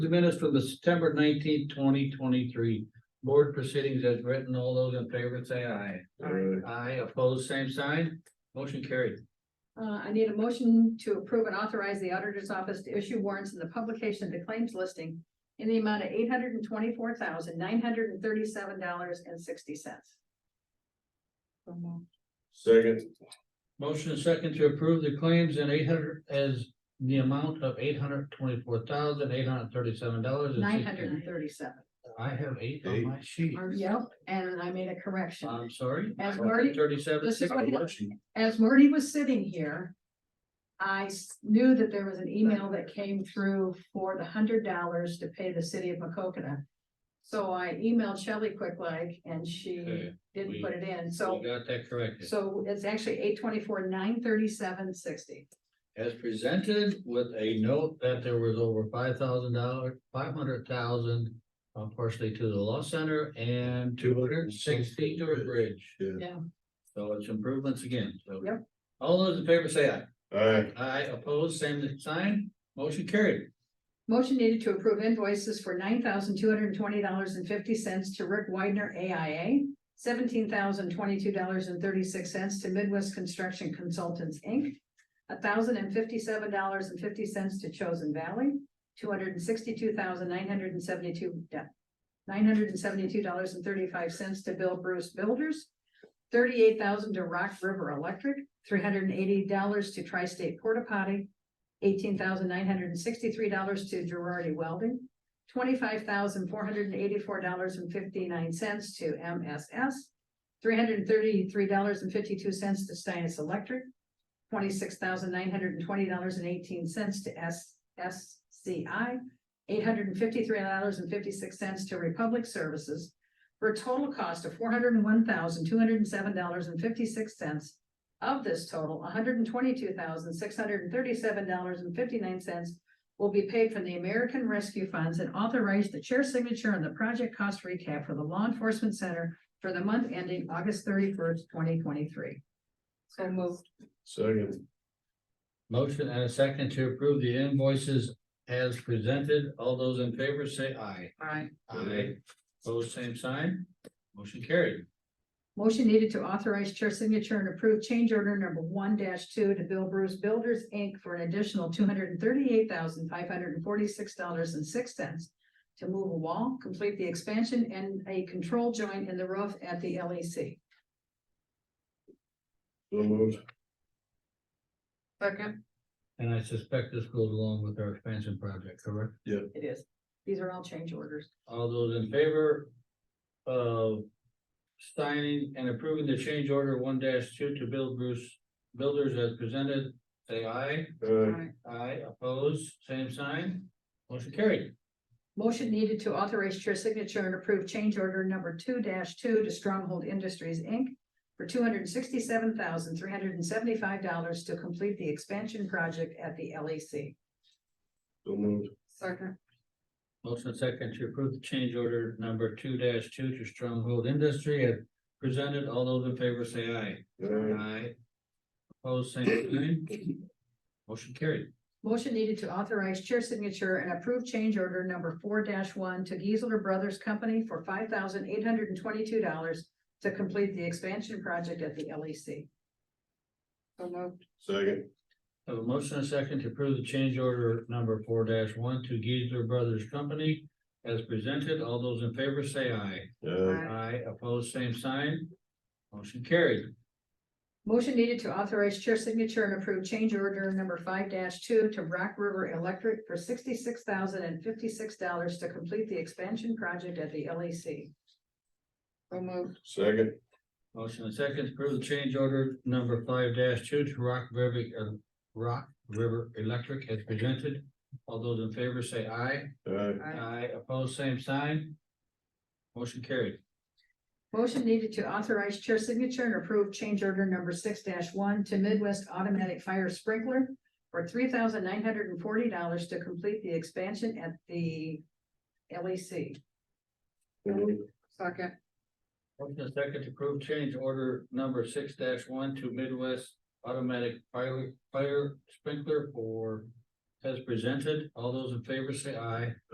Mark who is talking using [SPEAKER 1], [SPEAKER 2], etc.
[SPEAKER 1] The minutes for the September nineteenth, twenty twenty-three board proceedings as written. All those in favor say aye.
[SPEAKER 2] Aye.
[SPEAKER 1] Aye, opposed, same sign. Motion carried.
[SPEAKER 3] Uh, I need a motion to approve and authorize the auditor's office to issue warrants in the publication of the claims listing in the amount of eight hundred and twenty-four thousand, nine hundred and thirty-seven dollars and sixty cents.
[SPEAKER 2] Second,
[SPEAKER 1] Motion is second to approve the claims in eight hundred as the amount of eight hundred twenty-four thousand, eight hundred thirty-seven dollars.
[SPEAKER 3] Nine hundred and thirty-seven.
[SPEAKER 1] I have eight
[SPEAKER 2] Eight.
[SPEAKER 1] on my sheet.
[SPEAKER 3] Yep, and I made a correction.
[SPEAKER 1] I'm sorry.
[SPEAKER 3] As Marty-
[SPEAKER 1] Thirty-seven,
[SPEAKER 3] This is
[SPEAKER 1] six.
[SPEAKER 3] what happened. As Marty was sitting here, I s- knew that there was an email that came through for the hundred dollars to pay the city of Macokota. So I emailed Shelley Quick like, and she
[SPEAKER 1] Okay,
[SPEAKER 3] didn't
[SPEAKER 1] we-
[SPEAKER 3] put it in, so.
[SPEAKER 1] We got that corrected.
[SPEAKER 3] So it's actually eight twenty-four, nine thirty-seven, sixty.
[SPEAKER 1] As presented with a note that there was over five thousand dollars, five hundred thousand. Uh, partially to the law center and two hundred sixty to a bridge.
[SPEAKER 2] Yeah.
[SPEAKER 3] Yeah.
[SPEAKER 1] So it's improvements again, so.
[SPEAKER 3] Yep.
[SPEAKER 1] All those in favor say aye.
[SPEAKER 2] aye,
[SPEAKER 1] Aye, opposed, same sign, motion carried.
[SPEAKER 3] Motion needed to approve invoices for nine thousand two hundred and twenty dollars and fifty cents to Rick Widener AIA. Seventeen thousand twenty-two dollars and thirty-six cents to Midwest Construction Consultants, Inc. thousand and fifty-seven dollars and fifty cents to Chosen Valley. Two hundred and sixty-two thousand nine hundred and seventy-two, nine hundred and seventy-two dollars and thirty-five cents to Bill Bruce Builders. Thirty-eight thousand dollars to Rock River Electric, three hundred and eighty dollars to Tri-State Porta Potty, eighteen thousand nine hundred and sixty-three dollars to Girardi Welding, twenty-five thousand four hundred and eighty-four dollars and fifty-nine cents to MSS, three hundred and thirty-three dollars and fifty-two cents to Steinis Electric, twenty-six thousand nine hundred and twenty dollars and eighteen cents to SSCI, eight hundred and fifty-three dollars and fifty-six cents to Republic Services, for a total cost of four hundred and one thousand two hundred and seven dollars and fifty-six cents of this total, hundred and twenty-two thousand, six hundred and thirty-seven dollars and fifty-nine cents will be paid from the American Rescue Funds and authorize the chair signature on the project cost recap for the Law Enforcement Center for the month ending August thirty-first, twenty twenty-three. So moved.
[SPEAKER 2] second,
[SPEAKER 1] Motion and a second to approve the invoices as presented. All those in favor say aye.
[SPEAKER 3] Aye.
[SPEAKER 2] Aye.
[SPEAKER 1] Opposed, same sign, motion carried.
[SPEAKER 3] Motion needed to authorize chair signature and approve change order number one two to Bill Bruce Builders, Inc. for an additional two hundred and thirty-eight thousand, five hundred and forty-six dollars and six cents to move a wall, complete the expansion and a control joint in the roof at the E LEC.
[SPEAKER 2] so moved,
[SPEAKER 3] Second.
[SPEAKER 1] And I suspect this goes along with our expansion project, correct?
[SPEAKER 3] It is. These are all change orders.
[SPEAKER 1] All those in favor of signing and approving the change order one two to Bill Bruce Builders as presented, say aye.
[SPEAKER 2] aye,
[SPEAKER 1] Aye, opposed, same sign, motion carried.
[SPEAKER 3] Motion needed to authorize chair signature and approve change order number two two to Stronghold Industries, Inc. For two hundred and sixty-seven thousand, three hundred and seventy-five dollars to complete the expansion project at the E LEC.
[SPEAKER 2] so moved,
[SPEAKER 3] Second.
[SPEAKER 1] Motion second to approve the change order number two two to Stronghold Industry as presented. All those in favor say aye.
[SPEAKER 2] aye,
[SPEAKER 1] Aye. Opposed, same sign. Motion carried.
[SPEAKER 3] Motion needed to authorize chair signature and approve change order number four one to Geisler Brothers Company for five thousand, eight hundred and twenty-two dollars to complete the expansion project at the E LEC. So moved.
[SPEAKER 2] second,
[SPEAKER 1] Have a motion and a second to approve the change order number four one to Geisler Brothers Company as presented. All those in favor say aye.
[SPEAKER 2] aye,
[SPEAKER 1] Aye, opposed, same sign. Motion carried.
[SPEAKER 3] Motion needed to authorize chair signature and approve change order number five two to Rock River Electric for sixty-six thousand and fifty-six dollars to complete the expansion project at the LEC. So moved.
[SPEAKER 2] second,
[SPEAKER 1] Motion and second to approve the change order number five two to Rock River, uh, Rock River Electric as presented. All those in favor say aye.
[SPEAKER 2] aye,
[SPEAKER 1] Aye, opposed, same sign. Motion carried.
[SPEAKER 3] Motion needed to authorize chair signature and approve change order number six one to Midwest Automatic Fire Sprinkler for three thousand nine hundred and forty dollars to complete the expansion at the LEC.
[SPEAKER 2] so moved,
[SPEAKER 3] Second.
[SPEAKER 1] Motion and second to approve change order number six one to Midwest Automatic Fire, Fire Sprinkler for as presented. All those in favor say aye.